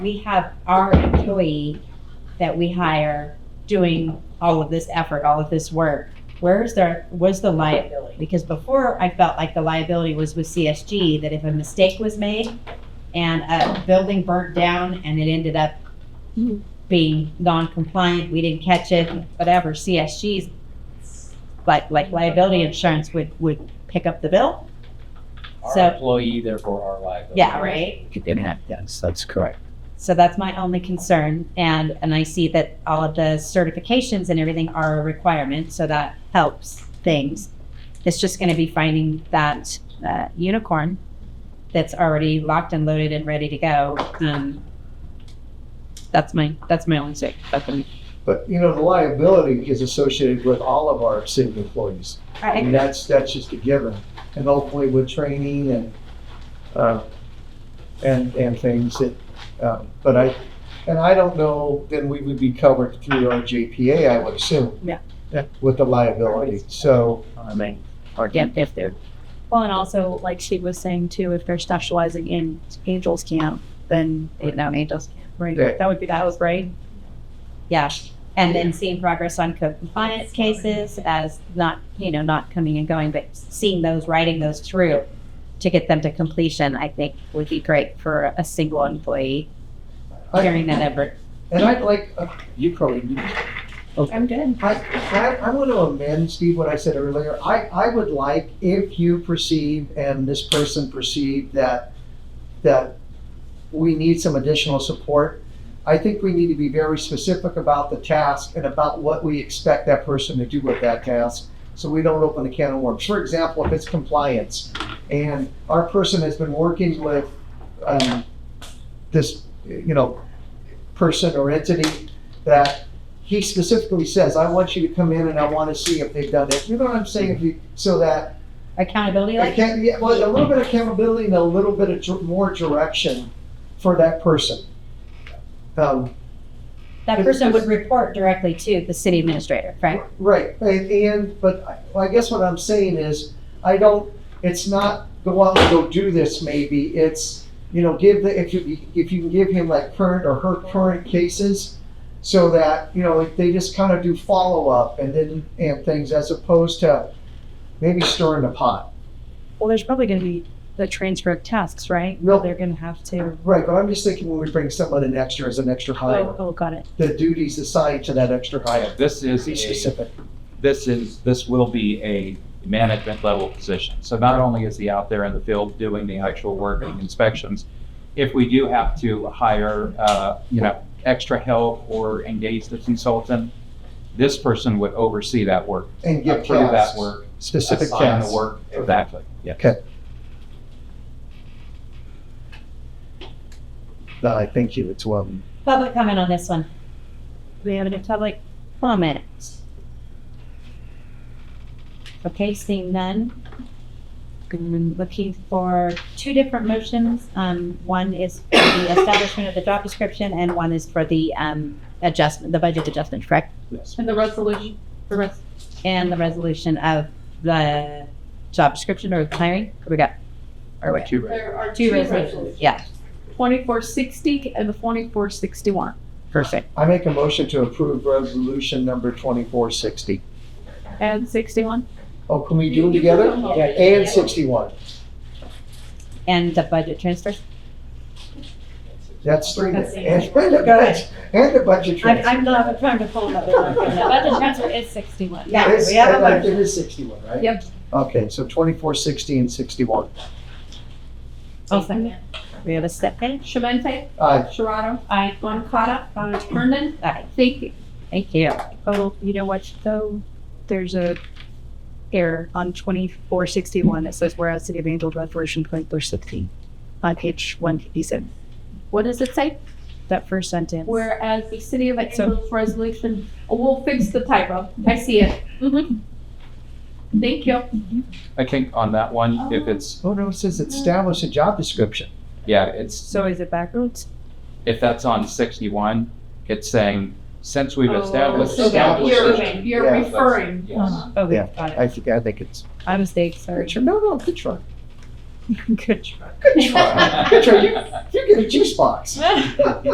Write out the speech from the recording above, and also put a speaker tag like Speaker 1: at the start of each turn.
Speaker 1: we have our employee that we hire doing all of this effort, all of this work. Where is there, was the liability? Because before, I felt like the liability was with CSG, that if a mistake was made and a building burnt down and it ended up
Speaker 2: Mhm.
Speaker 1: being non-compliant, we didn't catch it, whatever, CSG's like, like liability insurance would, would pick up the bill? So-
Speaker 3: Our employee, therefore our liability.
Speaker 1: Yeah, right?
Speaker 4: Yeah, yes, that's correct.
Speaker 1: So that's my only concern, and, and I see that all of the certifications and everything are a requirement, so that helps things. It's just gonna be finding that, uh, unicorn that's already locked and loaded and ready to go, um, that's my, that's my only sick, that's my.
Speaker 5: But, you know, the liability is associated with all of our city employees. I mean, that's, that's just a given. And hopefully with training and, uh, and, and things that, um, but I, and I don't know, then we would be covered through our JPA, I would assume.
Speaker 1: Yeah.
Speaker 4: Yeah.
Speaker 5: With the liability, so,
Speaker 4: I mean, or if if they're,
Speaker 2: Well, and also, like she was saying too, if they're specializing in Angels Camp, then they know Angels Camp, right?
Speaker 5: Right.
Speaker 2: That would be that was right.
Speaker 1: Yeah, and then seeing progress on code compliance cases as not, you know, not coming and going, but seeing those, writing those through to get them to completion, I think would be great for a single employee
Speaker 5: I,
Speaker 1: carrying that effort.
Speaker 5: and I'd like, uh, you probably
Speaker 2: I'm good.
Speaker 5: I, I, I want to amend, Steve, what I said earlier. I, I would like if you perceive and this person perceived that, that we need some additional support, I think we need to be very specific about the task and about what we expect that person to do with that task. So we don't open a can of worms. For example, if it's compliance and our person has been working with, um, this, you know, person or entity that he specifically says, I want you to come in and I want to see if they've done it. You know what I'm saying? If you- So that,
Speaker 1: Accountability, like,
Speaker 5: account- yeah, well, a little bit of accountability and a little bit of dir- more direction for that person. Um,
Speaker 1: that person would report directly to the city administrator, right?
Speaker 5: Right, and, and, but I- well, I guess what I'm saying is, I don't, it's not go out and go do this maybe, it's, you know, give the, if you, if you can give him like current or her current cases, so that, you know, like, they just kind of do follow-up and then, and things, as opposed to maybe stirring the pot.
Speaker 2: Well, there's probably going to be the transfer of tasks, right?
Speaker 5: No.
Speaker 2: They're going to have to.
Speaker 5: Right, but I'm just thinking when we bring someone in extra as an extra
Speaker 2: Oh,
Speaker 5: hire,
Speaker 2: oh, got it.
Speaker 5: the duties assigned to that extra hire,
Speaker 3: This is
Speaker 5: be
Speaker 3: a,
Speaker 5: specific.
Speaker 3: this is, this will be a management level position. So not only is he out there in the field doing the actual work and inspections, if we do have to hire, uh, you know, extra help or engage the consultant, this person would oversee that work,
Speaker 5: And give
Speaker 3: approve that
Speaker 5: tasks,
Speaker 3: work,
Speaker 5: specific
Speaker 3: assign the
Speaker 5: tasks.
Speaker 3: work. Exactly, yeah.
Speaker 5: No, I thank you, it's well.
Speaker 1: Public comment on this one,
Speaker 2: Do we have any public?
Speaker 1: comment. Okay, seeing none. I'm looking for two different motions. Um, one is for the establishment of the job description and one is for the, um, adjustment, the budget adjustment, correct?
Speaker 3: Yes.
Speaker 2: And the resolution. The rest.
Speaker 1: and the resolution of the job description or hiring. Here we go. Or what?
Speaker 3: Too right.
Speaker 6: There are
Speaker 1: Two resolutions. Yeah,
Speaker 6: Twenty-four sixty and the twenty-four sixty-one.
Speaker 1: perfect.
Speaker 5: I make a motion to approve resolution number twenty-four sixty.
Speaker 6: And sixty-one?
Speaker 5: Oh, can we do them together? And sixty-one.
Speaker 1: And the budget transfer.
Speaker 5: That's three. And
Speaker 6: That's the-
Speaker 5: and the budget, and the budget transfer.
Speaker 1: not trying to pull another
Speaker 5: one. The budget
Speaker 6: transfer is sixty-one.
Speaker 5: It's-
Speaker 1: we have a
Speaker 5: and I-
Speaker 1: motion.
Speaker 5: It is sixty-one, right?
Speaker 6: Yep.
Speaker 5: Okay, so twenty-four sixty and sixty-one.
Speaker 1: I'll second. We have a second.
Speaker 6: Shemente,
Speaker 5: Aye.
Speaker 6: Sharado. Aye. Moncada. Aye. Hernan.
Speaker 1: Aye.
Speaker 6: Thank you.
Speaker 1: Thank you.
Speaker 2: Oh, you know what though? There's a error on 2461. It says whereas City of Angels Resolution 2416 on page 157.
Speaker 6: What does it say?
Speaker 2: That first sentence.
Speaker 6: Whereas the City of
Speaker 2: So-
Speaker 6: Angels Resolution, oh, we'll fix the typo. I see it. Thank you.
Speaker 3: I think on that one, if it's,
Speaker 5: Oh, no, it says establish a job description.
Speaker 3: yeah, it's
Speaker 2: So is it backwards?
Speaker 3: if that's on sixty-one, it's saying, since we've established.
Speaker 6: Oh. So that
Speaker 3: established-
Speaker 6: You're, you're
Speaker 5: Yeah.
Speaker 6: referring.
Speaker 3: Yes.
Speaker 2: Okay,
Speaker 5: Yeah.
Speaker 2: got it.
Speaker 5: I think, I think it's,
Speaker 2: My mistake, sorry.
Speaker 5: Richard, no, no, good try.
Speaker 2: Good try.
Speaker 5: Good try. Good try. You, you get a juice box.